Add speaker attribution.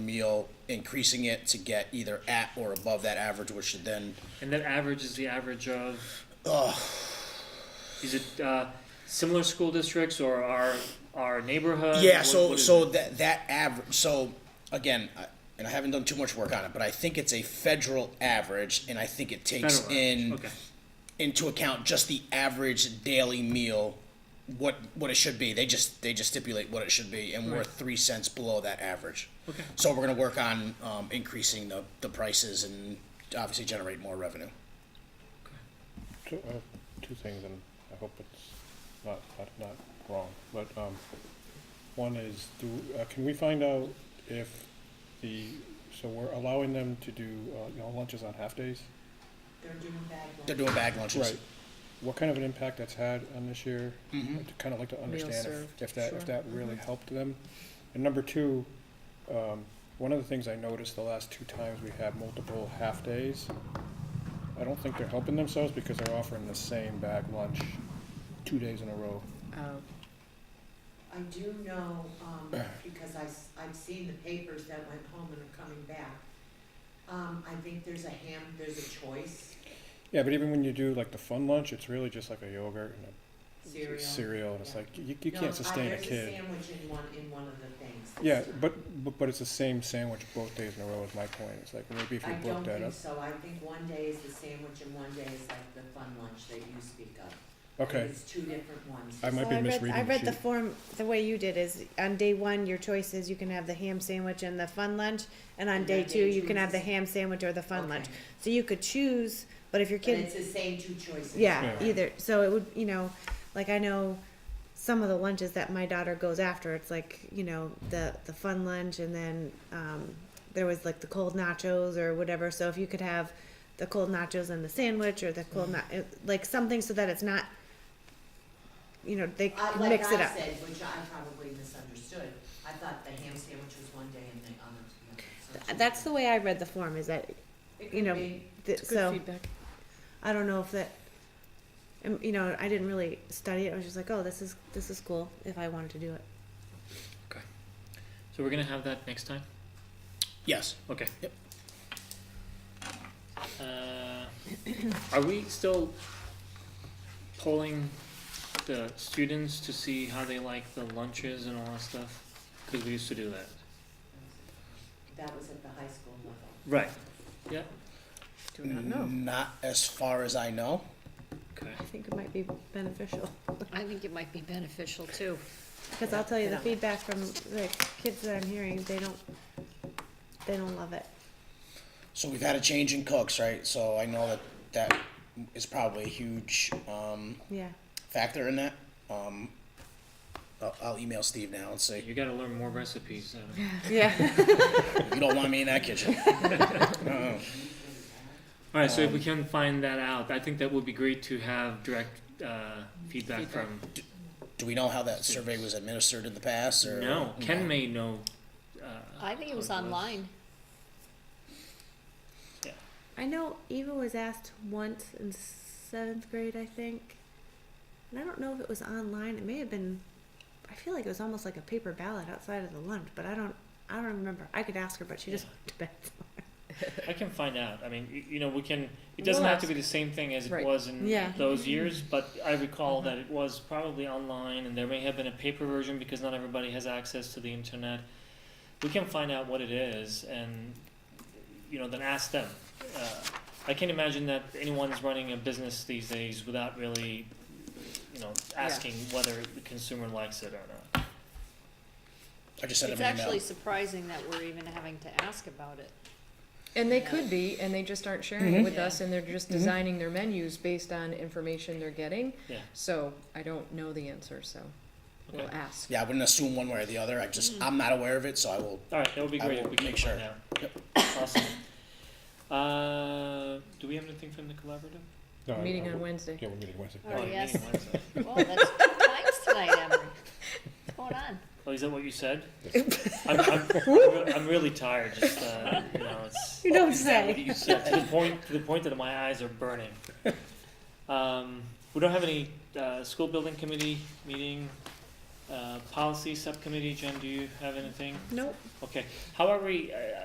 Speaker 1: meal, increasing it to get either at or above that average, which should then
Speaker 2: And that average is the average of. Is it uh, similar school districts or our our neighborhood?
Speaker 1: Yeah,
Speaker 2: What-
Speaker 1: so
Speaker 2: what is
Speaker 1: so
Speaker 2: it?
Speaker 1: that that average. So again, I, and I haven't done too much work on it, but I think it's a federal average, and I think it takes
Speaker 2: Federal average,
Speaker 1: in
Speaker 2: okay.
Speaker 1: into account just the average daily meal, what what it should be. They just they just stipulate what it should be, and we're
Speaker 2: Right.
Speaker 1: three cents below that average.
Speaker 2: Okay.
Speaker 1: So we're gonna work on um, increasing the the prices and obviously generate more revenue.
Speaker 3: Two, uh, two things, and I hope it's not, not, not wrong, but, um, one is, do, uh, can we find out if the, so we're allowing them to do, uh, you know, lunches on half-days?
Speaker 4: They're doing bad work.
Speaker 1: They're doing bag lunches.
Speaker 3: What kind of an impact that's had on this year? I'd kind of like to understand if,
Speaker 5: served,
Speaker 3: if that,
Speaker 5: sure.
Speaker 3: if that really
Speaker 4: Mm-hmm.
Speaker 3: helped them. And number two, um, one of the things I noticed the last two times we had multiple half-days, I don't think they're helping themselves because they're offering the same bag lunch two days in a row.
Speaker 5: Oh,
Speaker 4: I do know, um, because I, have seen the papers that went home and are coming back. Um, I think there's a ham, there's a choice
Speaker 3: Yeah, but even when you do like the fun lunch, it's really just like a yogurt and a
Speaker 4: cereal.
Speaker 3: cereal, and it's
Speaker 4: Yeah.
Speaker 3: like, you, you
Speaker 4: No,
Speaker 3: can't
Speaker 4: I-
Speaker 3: sustain a
Speaker 4: There's a
Speaker 3: kid.
Speaker 4: sandwich in one, in one of the things.
Speaker 3: Yeah, but, but, but it's the same sandwich both days in a row is my point. It's like, maybe if
Speaker 4: I
Speaker 3: you
Speaker 4: don't
Speaker 3: broke that
Speaker 4: think
Speaker 3: up.
Speaker 4: so. I think one day is the sandwich and one day is like the fun lunch that you speak of.
Speaker 3: Okay,
Speaker 4: It's two different ones.
Speaker 3: I might
Speaker 5: Well,
Speaker 3: be
Speaker 5: I read-
Speaker 3: misreading
Speaker 5: I
Speaker 3: the
Speaker 5: read the
Speaker 3: sheet.
Speaker 5: form, the way you did is, on day one, your choice is you can have the ham sandwich and the fun lunch, and on
Speaker 4: And
Speaker 5: day
Speaker 4: then
Speaker 5: two,
Speaker 4: they
Speaker 5: you can have the
Speaker 4: choose.
Speaker 5: ham sandwich or the fun lunch.
Speaker 4: Okay.
Speaker 5: So you could choose, but if your
Speaker 4: But
Speaker 5: kid
Speaker 4: it's the same two choices.
Speaker 5: Yeah,
Speaker 3: Yeah.
Speaker 5: either. So it would, you know, like I know some of the lunches that my daughter goes after. It's like you know the the fun lunch, and then um, there was like the cold nachos or whatever. So if you could have the cold nachos and the sandwich, or the cold na-
Speaker 6: Mm-hmm.
Speaker 5: it- like something, so that it's not, you know, they
Speaker 4: I, Uh, like
Speaker 5: mix
Speaker 4: I
Speaker 5: it up.
Speaker 4: said, which I probably misunderstood, I thought the ham sandwich was one day and the other was the other. so it's
Speaker 5: Th-
Speaker 4: two
Speaker 5: That's
Speaker 4: days.
Speaker 5: the way I read the form. Is that
Speaker 4: It
Speaker 5: you
Speaker 4: could
Speaker 5: know,
Speaker 4: be.
Speaker 5: th-
Speaker 6: It's
Speaker 5: so
Speaker 6: good feedback.
Speaker 5: I don't know if that. um, You know, I didn't really study it. I was just like, oh, this is this is cool. If I wanted to do it,
Speaker 2: So we're gonna have that next time.
Speaker 1: Yes.
Speaker 2: Okay.
Speaker 1: Yep.
Speaker 2: Uh, are we still polling the students to see how they like the lunches and all that stuff? Because we used to do that.
Speaker 4: That was at the high school level.
Speaker 2: Right.
Speaker 6: Do not know.
Speaker 1: Not as far as I know.
Speaker 2: Okay.
Speaker 5: I think it might be beneficial.
Speaker 6: I think it might be beneficial too.
Speaker 5: Because I'll tell you, the
Speaker 6: Yeah.
Speaker 5: feedback from the kids that I'm hearing, they don't, they don't love it.
Speaker 1: So we've had a change in cooks, right? So I know that that is probably a huge um,
Speaker 5: Yeah,
Speaker 1: factor in that. Um, I'll, I'll email Steve now and say
Speaker 2: You gotta learn more recipes. uh,
Speaker 5: yeah.
Speaker 1: you don't want me in that kitchen. Uh-uh.
Speaker 2: All right, so if we can find that out, I think that would be great to have direct uh, feedback
Speaker 6: Feedback.
Speaker 2: from.
Speaker 1: Do we know how that survey was administered in the past? Or Mm-hmm.
Speaker 2: No, Ken may know. Uh,
Speaker 6: I think
Speaker 2: how
Speaker 6: it was online.
Speaker 5: I know Eva was asked once in seventh grade, I think. And I don't know if it was online. It may have been, I feel like it was almost like a paper ballot outside of the lunch, but I don't, I don't remember. I could ask her, but she just went to bed.
Speaker 2: I can find out. I mean, y- you know, we can. It
Speaker 6: We'll
Speaker 2: doesn't have to
Speaker 6: ask. Mm-hmm.
Speaker 2: be the same thing as it
Speaker 6: Right.
Speaker 2: was in
Speaker 5: Yeah.
Speaker 2: those years, but I recall
Speaker 6: Mm-hmm.
Speaker 2: that it was probably online, and there may have been a paper version because not everybody has access to the internet. We can find out what it is, and you know, then ask them. Uh, I can't imagine that anyone's running a business these days without really, you know,
Speaker 6: Yeah.
Speaker 2: asking whether the consumer likes it or not.
Speaker 1: I just sent
Speaker 6: It's
Speaker 1: him an email.
Speaker 6: actually surprising that we're even having to ask about it.
Speaker 4: And they
Speaker 7: They
Speaker 4: Yeah.
Speaker 7: could be, and they just aren't sharing it
Speaker 1: Mhm.
Speaker 7: with
Speaker 6: Yeah.
Speaker 7: us, and they're just
Speaker 1: Mhm.
Speaker 7: designing their menus based on information they're getting.
Speaker 2: Yeah.
Speaker 7: So I don't know the answer, so we'll
Speaker 2: Okay.
Speaker 7: ask.
Speaker 1: Yeah, I wouldn't assume one way or the other. I just
Speaker 6: Mm-hmm.
Speaker 1: I'm not aware of it, so I will.
Speaker 2: All right, that would be
Speaker 1: I
Speaker 2: great if
Speaker 1: will
Speaker 2: we can
Speaker 1: make sure.
Speaker 2: find out. Awesome. Uh, do we have anything from the collaborative?
Speaker 3: No, I-
Speaker 7: Meeting
Speaker 3: I-
Speaker 7: on Wednesday.
Speaker 3: Yeah, we're meeting Wednesday.
Speaker 6: All right.
Speaker 2: Oh, you
Speaker 6: yes.
Speaker 2: mean Wednesday.
Speaker 6: Well, that's two times tonight, Emery. What's going on?
Speaker 2: Oh, is that what you said? I'm, I'm, I'm re- I'm really tired. Just uh, you know, it's
Speaker 5: You don't
Speaker 2: what
Speaker 5: say.
Speaker 2: you said to the point to the point that my eyes are burning. Um, we don't have any uh, school building committee meeting. Uh, policy subcommittee, Jen, do you have anything?
Speaker 5: Nope.
Speaker 2: Okay, however, we- uh, I-